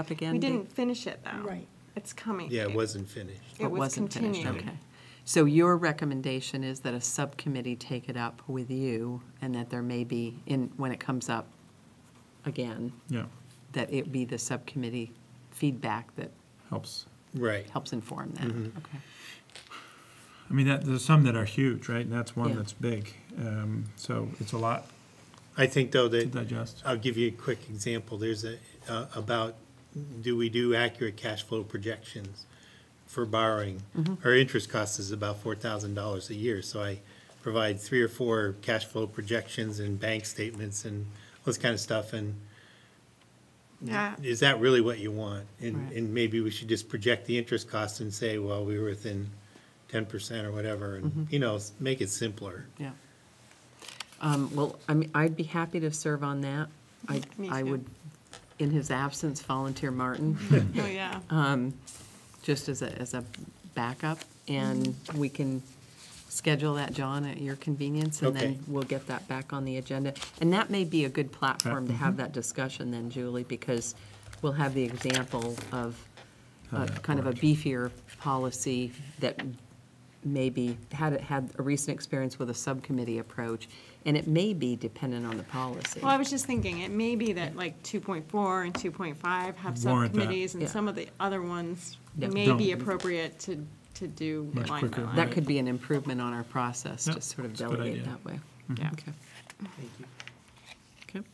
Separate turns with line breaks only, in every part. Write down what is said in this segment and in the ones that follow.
up again?
We
Dee?
didn't finish it, though.
Right.
It's coming.
Yeah, it wasn't finished.
It was
wasn't finished,
continued.
Okay. So your recommendation is that a subcommittee take it up with you and that there may be, in, when it comes up again,
Yeah,
that it be the subcommittee feedback that
helps.
Right.
helps inform that? Okay.
I mean, that, there's some that are huge, right? And that's
Yeah.
one that's big. Um, So it's a lot
I think, though,
to
that,
digest.
I'll give you a quick example. There's a, uh, about, do we do accurate cash flow projections for borrowing? Our interest cost is about $4,000 a year, so I provide three or four cash flow projections and bank statements and all this kind of stuff, and
Yeah.
is that really what you want? And,
Right.
and maybe we should just project the interest cost and say, well, we were within 10% or whatever, and, you know, s- make it simpler.
Yeah. Um, Well, I mean, I'd be happy to serve on that. I,
Me
I
too.
would, in his absence, volunteer Martin,
Oh, yeah.
just as a, as a backup. And we can schedule that, John, at your convenience, and
Okay.
then we'll get that back on the agenda. And that may be a good platform to have that discussion then, Julie, because we'll have the example of a-
that
kind of a
worked.
beefier policy that maybe had, had a recent experience with a subcommittee approach, and it may be dependent on the policy.
Well, I was just thinking, it may be that like 2.4 and 2.5 have
Warrant that.
subcommittees, and
Yeah.
some of the other ones
Yeah.
may be
Don't.
appropriate to, to do
Much
line by
quicker,
line.
That could be an improvement on our process,
Yeah,
to sort of
that's a good
delegate
idea. Mm-hmm.
that way.
Yeah.
Okay. Okay.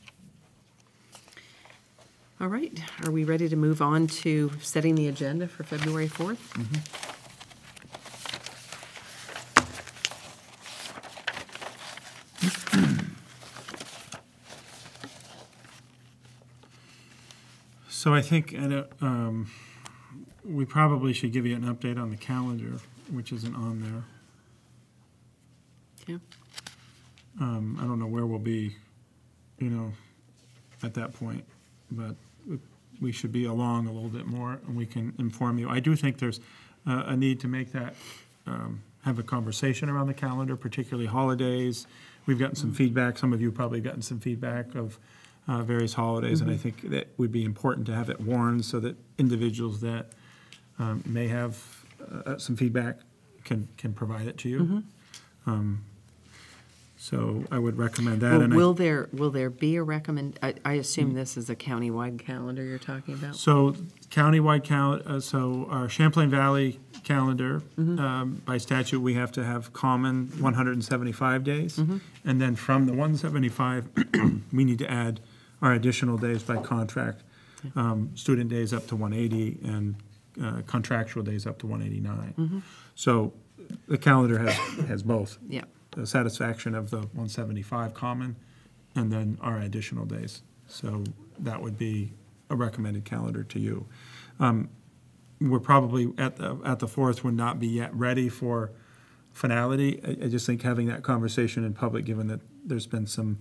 All right, are we ready to move on to setting the agenda for February 4th?
So I think, I don't- um, we probably should give you an update on the calendar, which isn't on there.
Okay.
Um, I don't know where we'll be, you know, at that point, but we should be along a little bit more, and we can inform you. I do think there's uh, a need to make that, um, have a conversation around the calendar, particularly holidays. We've gotten some feedback, some of you probably gotten some feedback of uh, various holidays,
Mm-hmm.
and I think that would be important to have it warned so that individuals that um, may have uh, some feedback can, can provide it to you. Um, So I would recommend that.
Mm-hmm. Well,
and I-
will there, will there be a recommend, I, I assume
Mm.
this is a countywide calendar you're talking about?
So countywide cal, uh, so our Champlain Valley calendar, um, by statute, we have to have common 175 days. And then from the 175, we need to add our additional days by contract. um, Student days up to 180 and uh, contractual days up to 189. So the calendar has, has both.
Yeah.
The satisfaction of the 175 common and then our additional days. So that would be a recommended calendar to you. Um, We're probably, at the, at the fourth, would not be yet ready for finality. I, I just think having that conversation in public, given that there's been some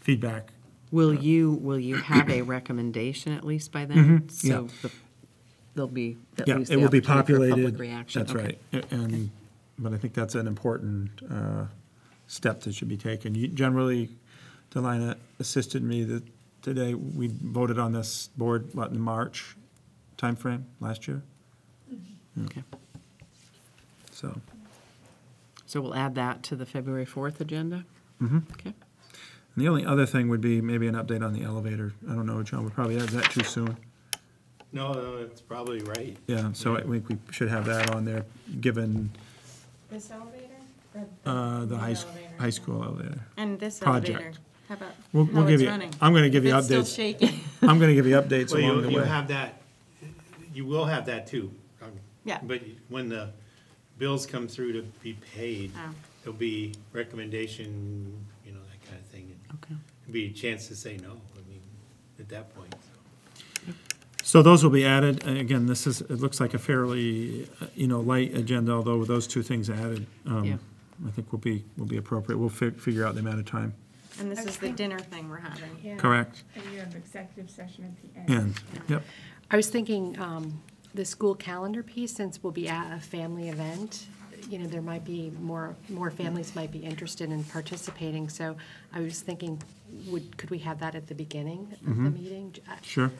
feedback.
Will
uh,
you, will you have a recommendation at least by then? So
Mm-hmm, yeah.
the- there'll be at
Yeah,
least
it
the
will be
opportunity for
populated.
public reaction.
That's
Okay.
right. A- And, but I think that's an important uh, step that should be taken. You- Generally, Delina assisted me that today, we voted on this board, what, in March timeframe last year?
Okay.
So,
So we'll add that to the February 4th agenda? Mm-hmm. Okay.
and the only other thing would be maybe an update on the elevator. I don't know, John, we probably have that too soon.
No, no, it's probably right.
Yeah, so I think we should have that on there, given
This elevator?
uh, the high, s- high school elevator.
And this
project.
elevator? How about
We'll- we'll
how
give
it's
you-
running?
I'm gonna give
If
you
it's still
updates.
shaking.
I'm going to give you updates
Well,
along the
you,
way.
you have that, you will have that too. um,
Yeah.
But when the bills come through to be paid,
Oh.
there'll be recommendation, you know, that kind of thing. and
Okay.
there'll Be a chance to say no, I mean, at that point, so.
So those will be added. And Again, this is, it looks like a fairly, uh, you know, light agenda, although with those two things added,
Yeah.
um, I think will be, will be appropriate. We'll fi- figure out the amount of time.
And this is the dinner thing we're having.
Yeah.
Correct.
And you have executive session at the end.
And, yep,
I was thinking, um, the school calendar piece, since we'll be at a family event, you know, there might be more, more families might be interested in participating, so I was thinking, would, could we have that at the beginning of the meeting?
sure.